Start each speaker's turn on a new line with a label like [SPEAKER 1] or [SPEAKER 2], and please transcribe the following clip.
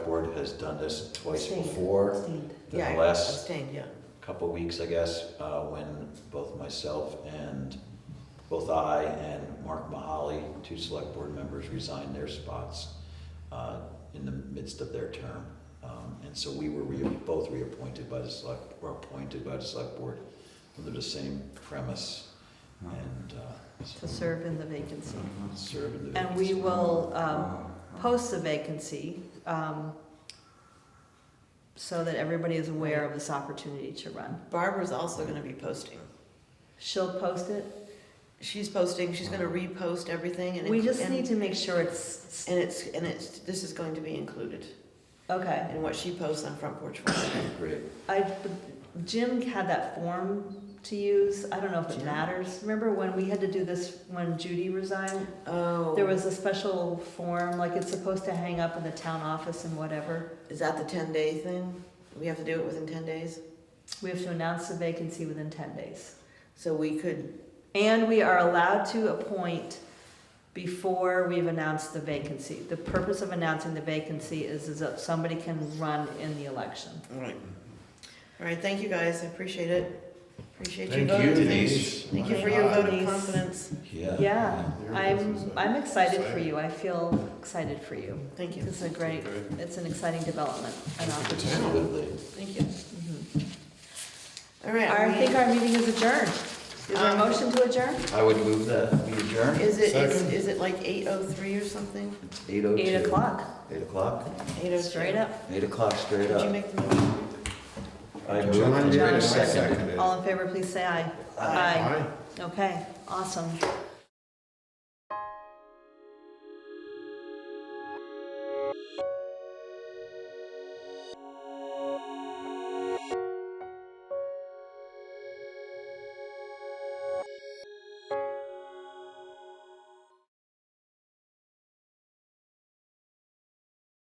[SPEAKER 1] Brooke has done this twice
[SPEAKER 2] Abstained.
[SPEAKER 1] before,
[SPEAKER 2] Abstained.
[SPEAKER 1] the
[SPEAKER 2] Yeah, I
[SPEAKER 1] last-
[SPEAKER 2] Abstained, yeah.
[SPEAKER 1] couple weeks, I guess, uh, when both myself and, both I and Mark Mahaly, two select board members, resigned their spots uh, in the midst of their term. Um, And so we were rea- both reappointed by the select, were appointed by the select board under the same premise and uh,
[SPEAKER 2] To serve in the vacancy.
[SPEAKER 1] serve in the.
[SPEAKER 2] And we
[SPEAKER 1] vacancy.
[SPEAKER 2] will um, post the vacancy um, so that everybody is aware of this opportunity to run.
[SPEAKER 3] Barbara's also gonna be posting.
[SPEAKER 2] She'll post it.
[SPEAKER 3] She's posting, she's gonna repost everything and.
[SPEAKER 2] We
[SPEAKER 3] inclu-
[SPEAKER 2] just
[SPEAKER 3] and-
[SPEAKER 2] need to make sure it's,
[SPEAKER 3] And it's, and it's, this is going to be included
[SPEAKER 2] okay.
[SPEAKER 3] in what she posts on Front Porch Forum.
[SPEAKER 1] Great.
[SPEAKER 2] I, Jim had that form to use, I don't know if it
[SPEAKER 3] Jim?
[SPEAKER 2] matters. Remember when we had to do this, when Judy resigned?
[SPEAKER 3] Oh.
[SPEAKER 2] There was a special form, like it's supposed to hang up in the town office and whatever.
[SPEAKER 3] Is that the ten day thing? We have to do it within ten days?
[SPEAKER 2] We have to announce the vacancy within ten days.
[SPEAKER 3] So we could,
[SPEAKER 2] And we are allowed to appoint before we've announced the vacancy. The purpose of announcing the vacancy is, is that somebody can run in the election.
[SPEAKER 3] alright. Alright, thank you guys, I appreciate it. Appreciate your
[SPEAKER 4] Thank
[SPEAKER 3] vote.
[SPEAKER 4] you,
[SPEAKER 1] Denise.
[SPEAKER 3] Thank you for
[SPEAKER 2] Thank
[SPEAKER 3] your
[SPEAKER 2] you,
[SPEAKER 3] vote of
[SPEAKER 2] Denise.
[SPEAKER 3] confidence.
[SPEAKER 1] Yeah.
[SPEAKER 2] Yeah,
[SPEAKER 4] There it is,
[SPEAKER 2] I'm,
[SPEAKER 4] isn't it?
[SPEAKER 2] I'm excited for you. I feel excited for you.
[SPEAKER 3] Thank you,
[SPEAKER 2] This is a great,
[SPEAKER 4] Okay.
[SPEAKER 2] it's an exciting development, an opportunity.
[SPEAKER 1] Absolutely.
[SPEAKER 3] thank you.
[SPEAKER 2] Mhm.
[SPEAKER 3] Alright.
[SPEAKER 2] I think our meeting is adjourned. Is there a
[SPEAKER 3] Um,
[SPEAKER 2] motion to adjourn?
[SPEAKER 1] I would move that we adjourn.
[SPEAKER 3] Is it, is,
[SPEAKER 4] Second.
[SPEAKER 3] is it like eight oh three or something?
[SPEAKER 1] It's eight oh two.
[SPEAKER 2] Eight o'clock,
[SPEAKER 1] Eight o'clock?
[SPEAKER 3] Eight oh two.
[SPEAKER 2] straight up.
[SPEAKER 1] Eight o'clock, straight
[SPEAKER 3] Did you
[SPEAKER 1] up.
[SPEAKER 3] make the motion?
[SPEAKER 1] I moved.
[SPEAKER 4] John
[SPEAKER 1] and
[SPEAKER 4] did,
[SPEAKER 1] Jim
[SPEAKER 4] I
[SPEAKER 2] John
[SPEAKER 1] seconded.
[SPEAKER 4] seconded it.
[SPEAKER 2] All in favor, please say aye.
[SPEAKER 3] Aye.
[SPEAKER 2] Okay, awesome.